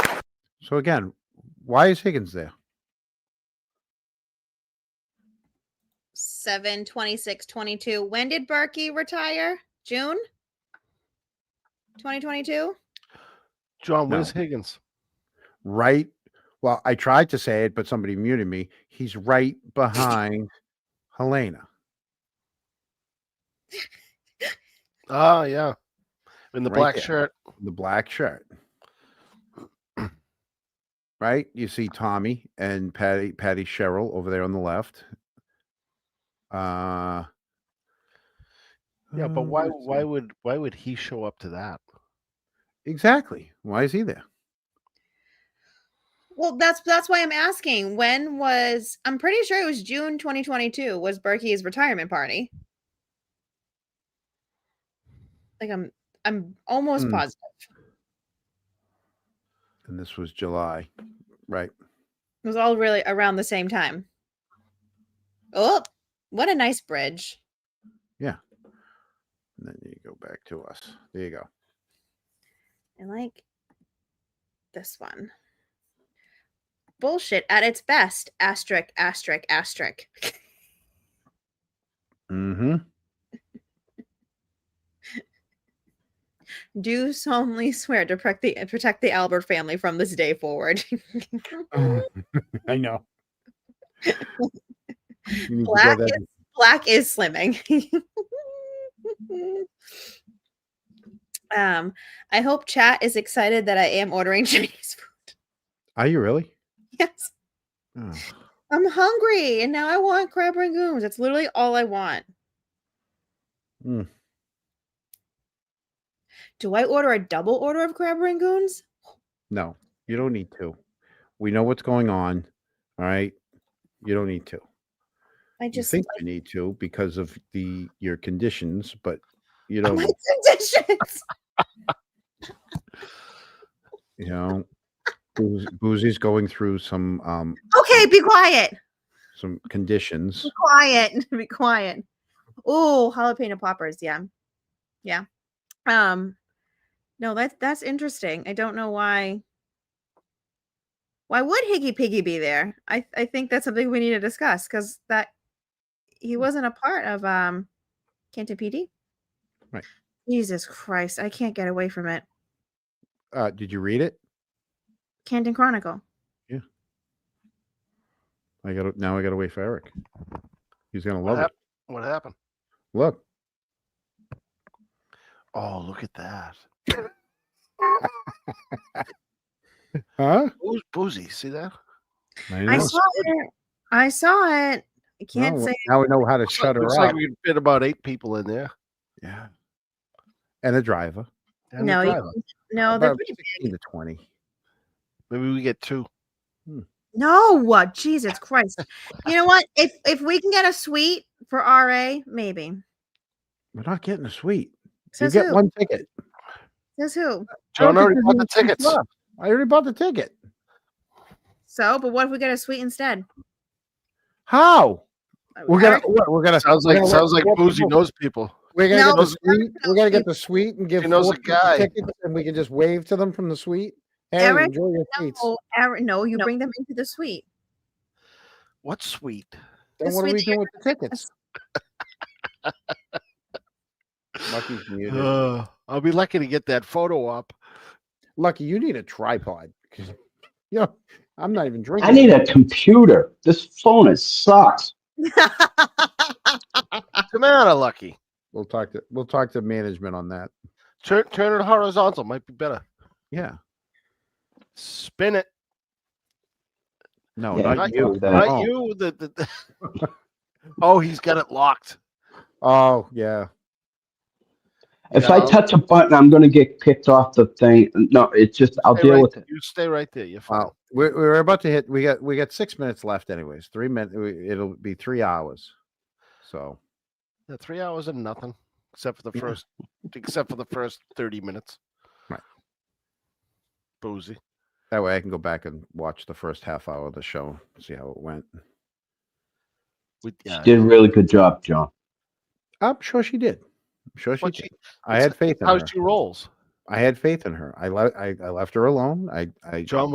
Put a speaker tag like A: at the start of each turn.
A: So again, why is Higgins there?
B: 7 26 22 when did Berkey retire june 2022
C: John,
A: No.
C: where's Higgins?
A: Right. Well, I tried to say it, but somebody muted me. He's right behind Helena.
C: Ah, yeah. In the
A: Right
C: black
A: there.
C: shirt.
A: the black shirt. Right? You see Tommy and Patty Patty Sherrill over there on the left. Uh
C: Yeah, but
A: uh,
C: why
A: let's
C: why
A: see.
C: would why would he show up to that?
A: exactly. Why is he there?
B: well that's that's why i'm asking when was i'm pretty sure it was june 2022 was Berkey's retirement party like i'm i'm almost
A: Hmm.
B: positive
A: And this was July. Right.
B: it was all really around the same time oh what a nice bridge
A: And then you go back to us. There you go.
B: and like this one. Bullshit at its best. Asterisk, asterisk, asterisk.
A: Mm-hmm.
B: Do solemnly swear to protect the protect the Albert family from this day forward.
A: Oh, I know. You need to go
B: Black
A: there.
B: is, black is slimming. um, I hope chat is excited that I am ordering Chinese food.
A: Are you really?
B: Yes,
A: Oh.
B: I'm hungry, and now I want crab rangoons. That's literally all I want.
A: Mm.
B: Do I order a double order of crab rangoons?
A: No, you don't need to. We know what's going on. All right. You don't need to.
B: I
A: You
B: just
A: think you need to because of the your conditions, but you don't.
B: like my conditions.
A: You know, Booz- Boozy's going through some um
B: okay, be quiet.
A: some conditions.
B: Be quiet. Be quiet. Oh, jalapeno poppers. Yeah. Yeah. Um, no, that's that's interesting. I don't know why. Why would Higgy Piggy be there? I, I think that's something we need to discuss because that
A: Mm.
B: he wasn't a part of um Canton PD.
A: Right.
B: Jesus Christ, I can't get away from it.
A: Uh, did you read it?
B: Canton Chronicle.
A: I got to now. I got to wait for Eric. He's gonna
C: What,
A: love
C: hap- what happened?
A: it. Look,
C: Oh, look at that.
A: huh?
C: Booz, boozy, see that?
B: I
A: know. uh,
B: saw it. I saw it. I can't
A: Now-
B: say
A: Now we know how to
C: Looks like-
A: shut her
C: looks
A: up.
C: like we could fit about eight people in there.
A: yeah, and a driver.
C: and a
B: No, you-
C: driver.
B: no. They're
A: About
B: pretty big.
A: 16 to twenty.
C: maybe we get two.
B: No, uh, Jesus Christ. You know what? If if we can get a suite for RA, maybe.
A: We're not getting a suite. You
B: Says
A: get
B: who?
A: one ticket.
B: Says who?
A: I don't
C: John already
A: think
C: bought the
A: there's any seats
C: tickets.
A: left. I already bought the ticket.
B: So, but what if we get a suite instead?
A: How?
B: Uh,
A: We're gonna
B: Eric-
A: what, we're gonna
C: Sounds
A: we're
C: like
A: gonna let-
C: sounds like
A: let
C: Boozy
A: people-
C: knows people.
A: We're gonna
B: No,
A: get the
B: but-
A: suite. We're gonna get the suite and give
C: She knows
A: four
C: a
A: people
C: guy.
A: tickets, and we can just wave to them from the suite. Hey,
B: Eric,
A: enjoy your seats.
B: no, Eric, no, you bring them into the suite.
C: What sweet?
A: Then
B: the
A: what are we
B: suite that you're
A: doing with the tickets? Lucky's muted.
C: Uh, I'll be lucky to get that photo up.
A: Lucky, you need a tripod. 'cause, You know, I'm not even drinking.
D: I need a computer. This phone is sucks.
C: What's the matter, Lucky?
A: We'll talk to we'll talk to management on that.
C: Turn turn it horizontal. Might be better.
A: Yeah.
C: Spin it.
A: No,
D: Yeah,
A: not
C: not
A: you.
D: you. That-
C: Not
A: Oh.
C: you. The, the, the- oh, he's got it locked.
A: Oh yeah.
D: If
C: Yeah.
D: I touch a button, I'm gonna get kicked off the thing. No, it's just I'll
C: Stay
D: deal
C: right
D: with
C: there.
D: it.
C: You stay right there. You're fine.
A: Wow. We're, we're about to hit. We got we got six minutes left. Anyways, three minutes. It'll be three hours. So
C: Yeah, three hours and nothing, except for the
A: Yeah.
C: first, except for the first thirty minutes.
A: Right.
C: Boozy.
A: that way, I can go back and watch the first half hour of the show, see how it went.
C: We,
D: She
C: yeah,
D: did a really good job, John.
A: I'm sure she did. I'm sure she
C: what
A: did.
C: she,
A: I
C: it's
A: had faith in
C: how
A: her.
C: she rolls.
A: I had faith in her. I, le- I I left her alone. I I
C: John